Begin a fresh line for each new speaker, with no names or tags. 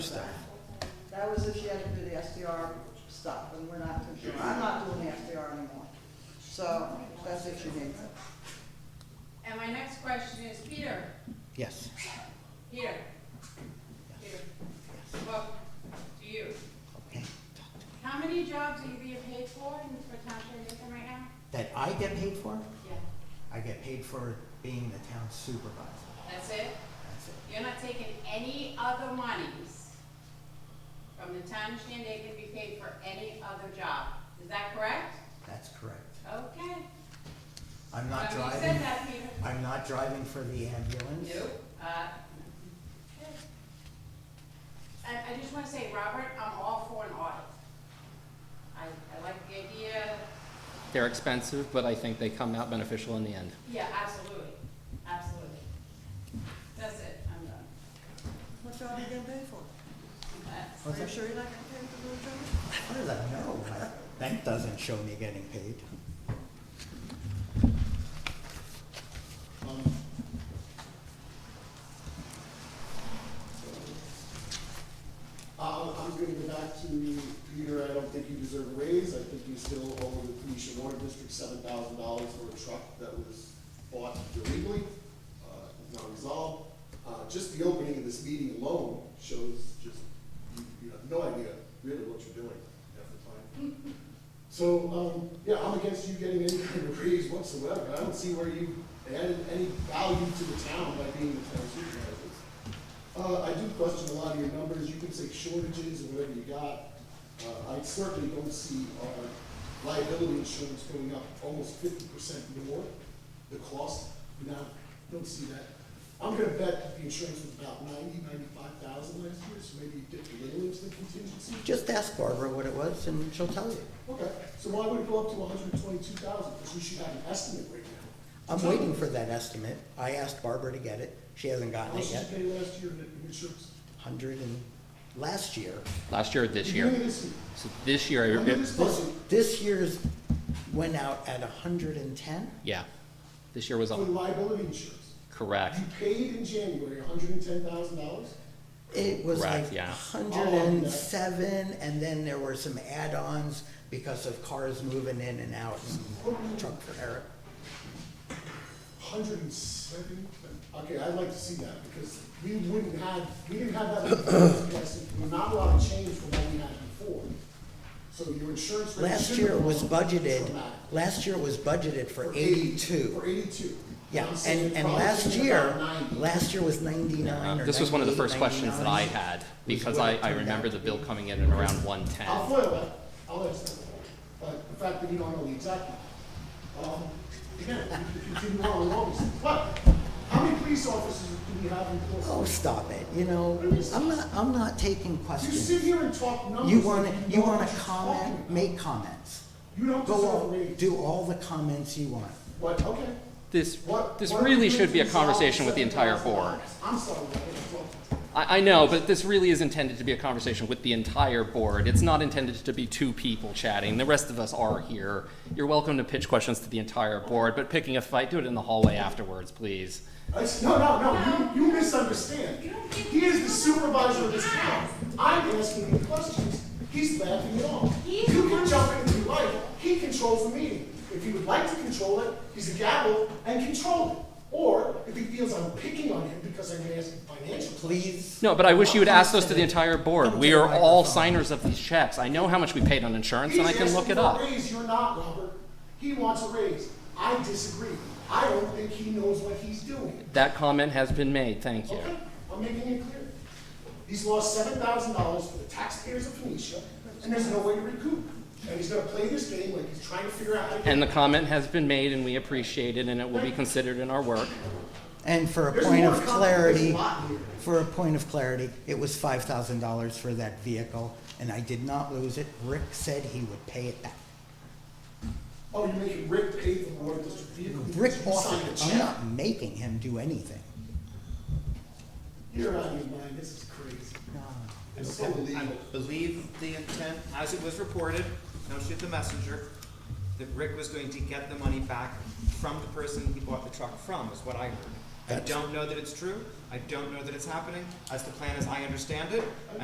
stuff.
That was if she had to do the SDR stuff, and we're not too sure. I'm not doing the SDR anymore. So that's if she needs it.
And my next question is, Peter,
Yes.
Peter, Peter, well, to you.
Okay.
How many jobs are you being paid for in for township of Lincoln right now?
That I get paid for,
Yeah.
I get paid for being the town supervisor.
That's it?
That's it.
You're not taking any other monies from the town of Shandaken to be paid for any other job. Is that correct?
That's correct.
Okay.
I'm not
Somebody said
driving,
that, Peter.
I'm not driving for the ambulance.
Nope. Uh, okay. I, I just wanna say, Robert, I'm all for an audit. I, I like the idea,
They're expensive, but I think they come out beneficial in the end.
yeah, absolutely, absolutely. That's it, I'm done.
What job are you getting paid for?
That's-
What's
Are you
that?
sure you're not getting paid for doing job?
How does that know? I- That doesn't show me getting paid.
Um, Uh, I'll- I'm going to go back to Peter, I don't think you deserve a raise, I think you still owe the Phoenicia Water District seven thousand dollars for a truck that was bought illegally, uh, not resolved. Uh, Just the opening of this meeting alone shows just, you- you have no idea really what you're doing half the time. So, um, yeah, I'm against you getting any kind of raise whatsoever, I don't see where you added any value to the town by being the town supervisor. Uh, I do question a lot of your numbers, you can say shortages and whatever you got. Uh, I certainly don't see our liability insurance going up almost fifty percent more, the cost, no, don't see that. I'm gonna bet that the insurance was about ninety, ninety-five thousand last year, so maybe you dipped a little into the contingency.
Just ask Barbara what it was and she'll tell you.
Okay, so why would it go up to hundred and twenty-two thousand, because we should have an estimate right now.
I'm waiting for that estimate. I asked Barbara to get it. She hasn't
How
gotten
much
it
did you
yet.
pay last year in in insurance?
Hundred and, last year,
Last year or this
Beginning
year?
of this year.
So this year,
Under
it-
this
this,
budget,
this year's went out at hundred and ten?
yeah, this year was
for
all,
liability insurance,
correct.
you paid in January hundred and ten thousand dollars?
It was
Correct,
like
yeah.
hundred and seven, and then there were some add-ons because of cars moving in and out and truck repair.
Hundred and seven, okay, I'd like to see that, because we wouldn't have, we didn't have that, in the first place, and not a lot of change from what we had before. So your insurance rate
Last
should
year
have
was
gone up
budgeted,
dramatically.
last year was budgeted for
For
eighty-two.
eighty-two.
Yeah,
I'm saying
and, and
probably
last
thinking
year,
about 90.
last year was ninety-nine
Uh,
or
This was one of the
98,
first questions that I
99.
had,
was
because
what
I,
it
I
turned
remember
out
the
to
bill
be.
coming in at around one
I'll
ten.
foil that, I'll ask that, but the fact that you don't know the exact number. Um, Again, you continue on with all these things, but how many police officers do we have in
Oh,
Portsmouth?
stop it, you know, I'm not, I'm not taking
You sit
questions.
here and talk numbers.
You wanna,
and
you
know
wanna
what you're talking
comment,
about.
make comments.
You don't
Go
deserve a
on,
raise.
do all the comments you want.
What, okay.
This,
What-
this
what are we
really
doing
should
to
be a
resolve
conversation with the entire board.
$7,000? I'm sorry, I didn't talk.
I, I know, but this really is intended to be a conversation with the entire board. It's not intended to be two people chatting. The rest of us are here. You're welcome to pitch questions to the entire board, but picking a fight, do it in the hallway afterwards, please.
I s- no, no, no, you, you misunderstand. He is the supervisor of this town. I'm asking him questions, he's laughing it off. You can jump in if you like, he controls the meeting. If he would like to control it, he's a gavel and control it. Or if he feels I'm picking on him because I'm asking financial.
Please.
No, but I wish you would ask those to the entire board.
Come
We
to the
are all
microphone.
signers of these checks. I know how much we paid on insurance, and I can look it up.
He's asking for a raise, you're not, Robert. He wants a raise. I disagree. I don't think he knows what he's doing.
That comment has been made, thank you.
Okay, I'm making it clear. He's lost seven thousand dollars for the taxpayers of Phoenicia, and there's no way to recoup. And he's gonna play this game like he's trying to figure out how to.
And the comment has been made, and we appreciate it, and it will be considered in our work.
And for a
There's
point
more
of
complicated- There's
clarity,
a lot here.
for a point of clarity, it was five thousand dollars for that vehicle, and I did not lose it. Rick said he would pay it back.
Oh, you're making Rick pay for the water district vehicle.
Rick
You signed
offered
a
it.
check.
I'm not making him do anything.
You're out of your mind, this is crazy. It's so
I
illegal.
believe the intent, as it was reported, no shoot the messenger, that Rick was going to get the money back from the person he bought the truck from, is what I heard. I
That's-
don't know that it's true, I don't know that it's happening, as the plan as I understand it,